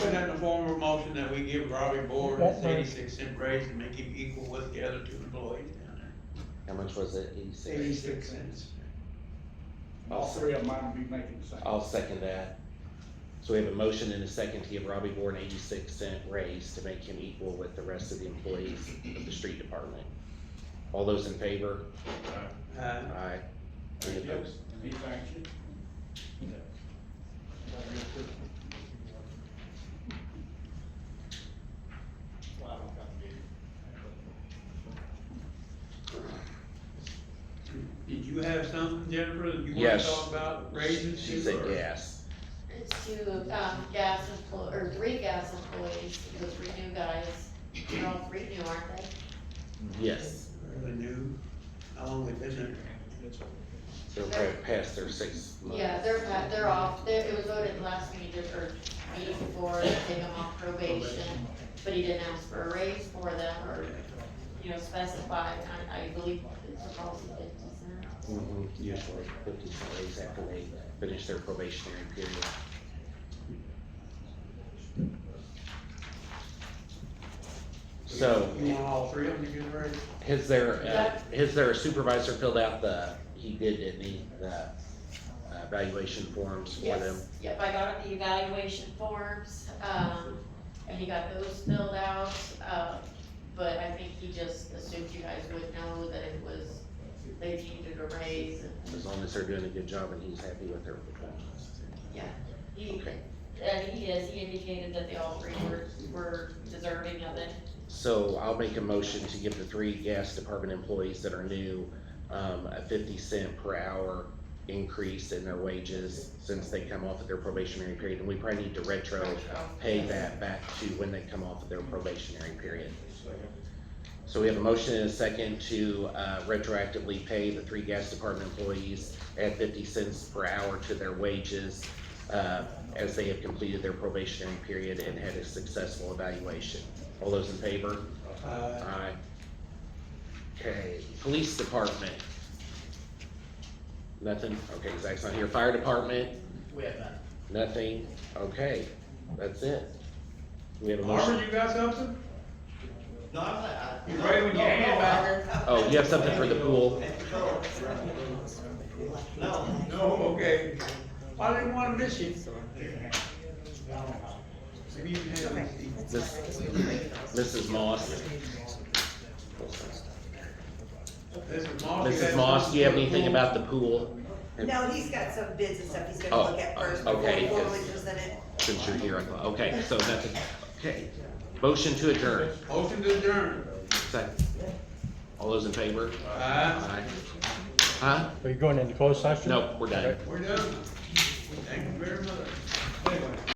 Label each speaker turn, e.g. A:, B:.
A: that in the form of a motion that we give Robbie Board
B: That's
A: his
B: right.
A: eighty-six cent raise and make him equal with the other two employees down there.
C: How much was it? Eighty-six?
A: Eighty-six cents.
D: All three of mine be making the same.
C: I'll second that. So we have a motion and a second to give Robbie Bourne eighty-six cent raise to make him equal with the rest of the employees of the street department. All those in favor?
A: Uh,
C: Aye. Any opposed?
D: He thanks you. Well, I don't have to be.
A: did you have something, Jennifer, that you wanna
C: Yes.
A: talk about raises?
C: She said
A: or-
C: yes.
E: It's to, um, gas employ, or three gas employees, the three new guys, they're all three new, aren't they?
C: Yes.
A: The new, how long they been there?
C: So they're past their six months.
E: Yeah, they're, pa- they're off, they it was voted last meeting, or meeting before, to take them off probation, but he didn't ask for a raise for them, or, you know, specify, I, I believe it's a policy fifty cent.
C: Mhm, Usually fifty cent raise after they finish their probationary period. So.
A: You want all three of them to get a raise?
C: Has there, uh,
E: That-
C: has there a supervisor filled out the, he did, didn't he, the uh, evaluation forms for them?
E: Yes, yep, I got the evaluation forms, um, and he got those filled out, uh, but I think he just assumed you guys would know that it was, they needed a raise, and
C: As long as they're doing a good job and he's happy with their
E: he,
C: Okay.
E: and he is, he indicated that they all three were, were deserving of it.
C: So I'll make a motion to give the three gas department employees that are new, um, a fifty cent per hour increase in their wages since they come off of their probationary period, and we probably need to retro pay that back to when they come off of their probationary period. So we have a motion and a second to uh, retroactively pay the three gas department employees at fifty cents per hour to their wages uh, as they have completed their probationary period and had a successful evaluation. All those in favor?
A: Uh,
C: Aye. Okay, police department. Nothing, okay, Zach's not here, fire department,
F: We have none.
C: nothing, okay, that's it. We have a motion,
A: Harvard, you got something?
F: No, I'm not. I-
A: You ready with your
F: no,
A: hand
F: no,
A: back
F: I-
A: there?
C: oh, you have something for the pool,
F: No,
A: No, okay. I didn't wanna miss you. Maybe you can have it.
C: This- Mrs. Moss,
A: This is Moss. you
C: Mrs.
A: have
C: Moss, do you have
A: something?
C: anything about the pool?
G: No, he's got some bids and stuff he's gonna
C: Oh,
G: look at first
C: oh,
G: before
C: okay,
G: we formally
C: 'cause-
G: present it.
C: Since you're here, I thought, okay, so that's, okay, motion to adjourn,
A: Motion to adjourn.
C: second. All those in favor?
A: Aye.
C: Aye. Huh?
B: Are you going into closed session?
C: Nope, we're done.
A: We're done. Thank you very much.